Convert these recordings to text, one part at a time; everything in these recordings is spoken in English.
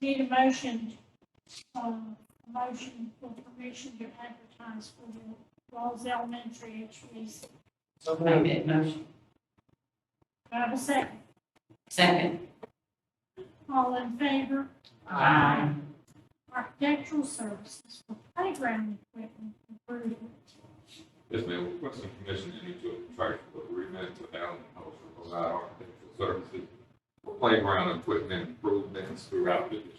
Need a motion, um, a motion for permission to advertise for the Rawls Elementary HVAC. So I moved. made a motion. Do I have a second? Second. All in favor? Aye. Architectural services for playground equipment improvement. Yes, ma'am, we're requesting permission to enter into a contract for agreement with Allen Cultural to provide architectural services for playground equipment improvements throughout the district.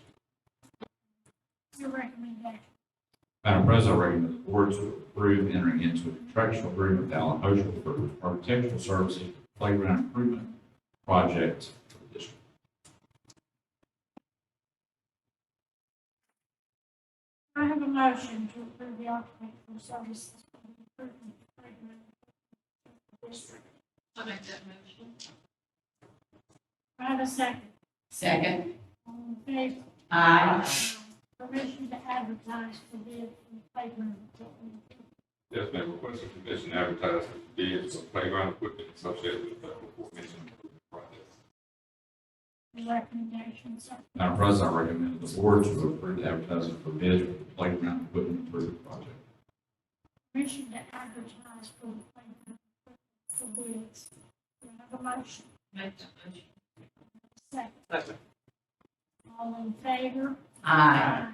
Your recommendation. Madam President, I recommend the board to approve entering into a contractual agreement with Allen Moschel for architectural services playground improvement project for the district. Do I have a motion to approve the architectural services for the improvement of playground equipment for the district. I make that motion. Do I have a second? Second. All in favor? Aye. Permission to advertise for bid for playground equipment. Yes, ma'am, we're requesting permission to advertise for bids for playground equipment associated with the aforementioned improvement projects. Your recommendation, sir. Madam President, I recommend the board to approve the advertising for bids for the playground equipment improvement project. Permission to advertise for the playground equipment for bids. Do I have a motion? Make that motion. Second. Second. All in favor? Aye.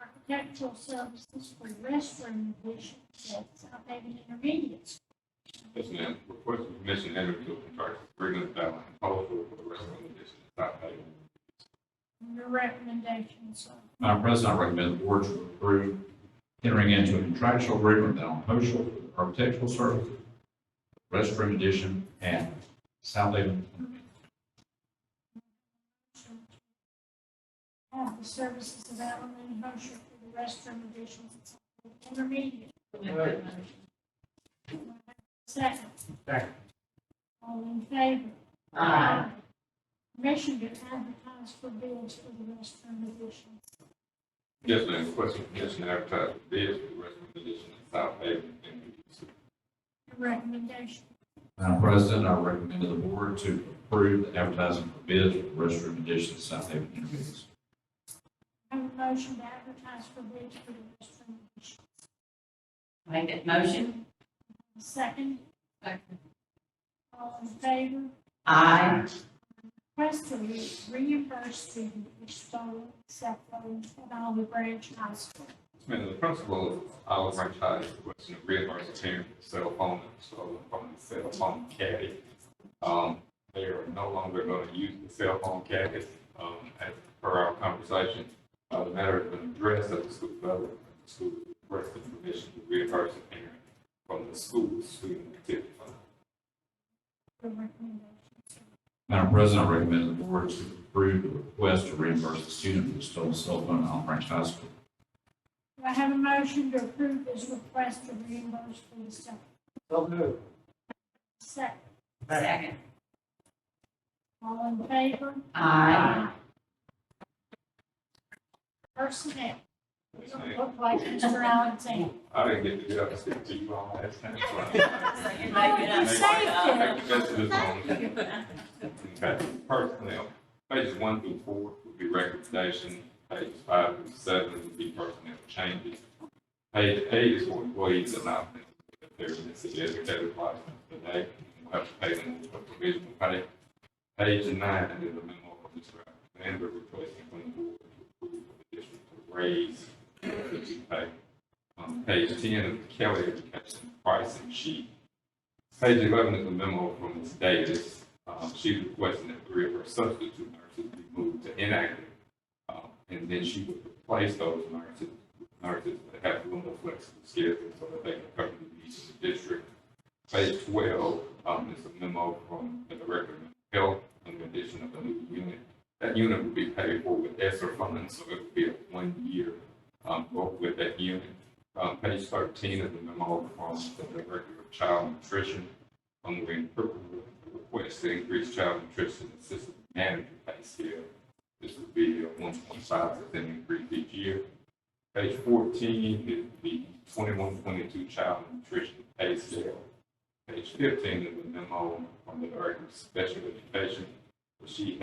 Architectural services for restroom additions at South Haven Intermediate. School. Yes, ma'am, we're requesting permission to enter into a contractual agreement with Allen Cultural for the rest of the district. Stop paying. Your recommendation, sir. Madam President, I recommend the board to approve entering into a contractual agreement with Allen Moschel for architectural services restroom addition at South Haven Intermediate. Have the services of Allen and Hosher for the restroom additions at South Haven Intermediate. Make that motion. Second. Second. All in favor? Aye. Permission to advertise for bids for the restroom additions. Yes, ma'am, we're requesting permission to advertise for bids for the rest of the district. Stop paying. Your recommendation. Madam President, I recommend to the board to approve the advertising for bids for restroom additions at South Haven Intermediate. School. Have a motion to advertise for bids for the restroom additions. Make that motion. Second. Second. All in favor? Aye. Request to re- reimburse student for stolen cell phones at Olive Branch High School. Ma'am, the principal of Olive Branch High is requesting a reimbursement of parents' cell phone and stolen from the cell phone caddy. Um, they are no longer going to use the cell phone caddies, um, as per our conversation. Uh, the matter has been addressed at the school level, the school requested permission to reimburse the parent from the school student activity fund. Your recommendation. Madam President, I recommend the board to approve the request to reimburse the student for the stolen cell phone at Olive Branch High School. Do I have a motion to approve this request to reimburse for the cell? So moved. Second. Second. All in favor? Aye. Personnel. Yes, Doesn't ma'am. look like Mr. Alexander. I didn't get to get up and speak to you all last time. so I- So you Oh, make it you up. saved it. Thank you, Mr. Desmond. Okay, personnel, pages one through four would be recommendation, pages five through seven would be personnel changes. Page eight is for employees that not, they're in the city educator license today, we'll have to pay them for provisional pay. Page nine is a memo of Mr. Alexander requesting from the board to approve the district to raise the pay. Um, page ten is the Kelly Education Pricing Sheet. Page eleven is a memo from Ms. Davis. Um, she requesting that three of her substitute nurses be moved to inactive. Um, and then she would replace those nurses, nurses that have a little more flexible schedule so that they can cover the needs of the district. Page twelve, um, is a memo from the Director of Health in addition of a new unit. That unit would be paid for with ESSER funding, so it would be a one-year, um, work with that unit. Um, page thirteen of the memo from the Director of Child Nutrition, on the request to increase child nutrition assistant manager pay scale. This would be a one point five percent increase each year. Page fourteen is the twenty-one, twenty-two child nutrition pay scale. Page fifteen is the memo from the Director of Special Education, where she